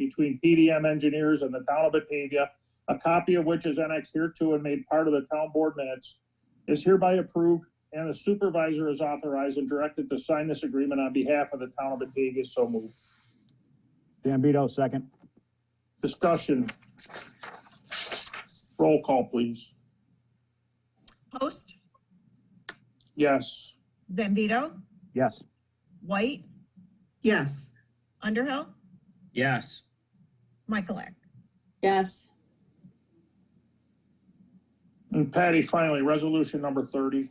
between PDM engineers and the town of Batavia, a copy of which is annexed hereto and made part of the town board minutes, is hereby approved and the supervisor is authorized and directed to sign this agreement on behalf of the town of Batavia. So moved. Zambito, second. Discussion. Roll call, please. Host, Yes. Zambito, Yes. White, yes, Underhill, yes, Michaelak. yes, And Patty, finally, resolution number thirty.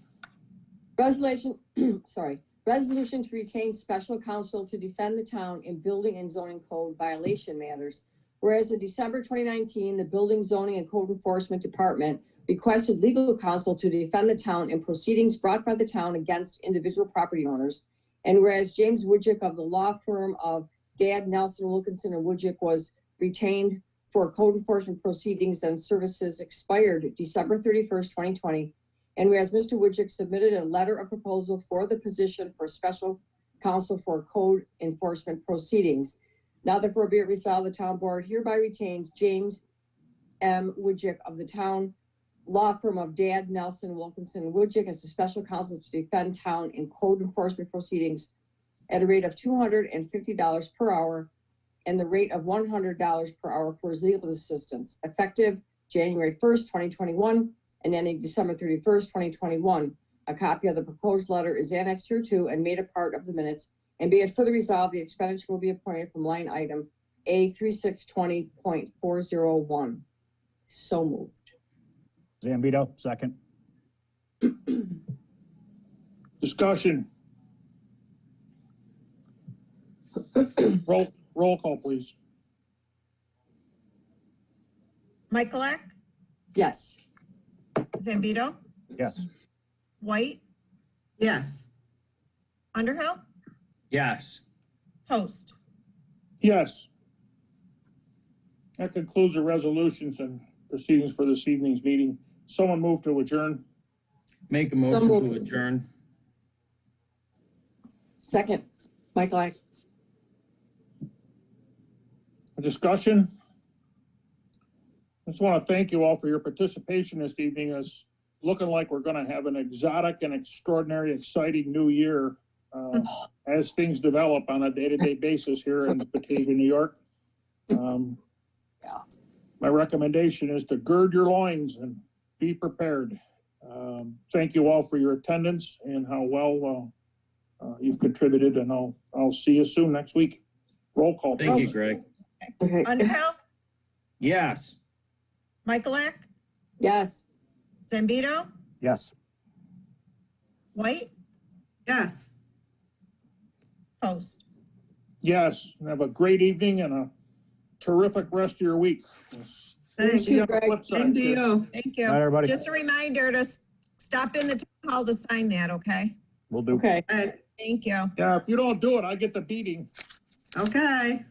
resolution, sorry, resolution to retain special counsel to defend the town in building and zoning code violation matters. Whereas in December twenty nineteen, the Building Zoning and Code Enforcement Department requested legal counsel to defend the town in proceedings brought by the town against individual property owners. And whereas James Woodjick of the law firm of Dad Nelson Wilkinson and Woodjick was retained for code enforcement proceedings and services expired December thirty-first, twenty twenty, And whereas Mr. Woodchick submitted a letter of proposal for the position for special counsel for code enforcement proceedings. Now therefore be it resolved, the town board hereby retains James M. Woodchick of the town law firm of Dad Nelson Wilkinson and Woodchick as a special counsel to defend town in code enforcement proceedings at a rate of two hundred and fifty dollars per hour and the rate of one hundred dollars per hour for his legal assistance, effective January first, twenty twenty-one, and ending December thirty-first, twenty twenty-one. A copy of the proposed letter is annexed hereto and made a part of the minutes. And be it further resolved, the expenditure will be appointed from line item A three six twenty point four zero one. So moved. Zambito, second. Discussion. Roll, roll call, please. Michaelak, Yes, Zambito, Yes. White, yes, Underhill, yes. Host. Yes. That concludes the resolutions and proceedings for this evening's meeting. Someone move to adjourn. Make a motion to moved. adjourn. second, Michael, I, Discussion. I Just want to thank you all for your participation this evening. It's looking like we're going to have an exotic and extraordinary, exciting new year uh, as things develop on a day-to-day basis here in Batavia, New York. Um, Yeah. My recommendation is to gird your loins and be prepared. Um, Thank you all for your attendance and how well uh, uh, you've contributed, and I'll, I'll see you soon next week. Roll call. Thank you, please. Greg. okay, Underhill, Yes. Michaelak, yes. Zambito, Yes. White, yes. Host. Yes, have a great evening and a terrific rest of your week. Thank See you. on the flip side, Same to kids. you. Thank All right, you. everybody. Just a reminder to s- stop in the town hall to sign that, okay? Will do. Okay. Uh, Thank you. Yeah, if you don't do it, I get the beating. Okay.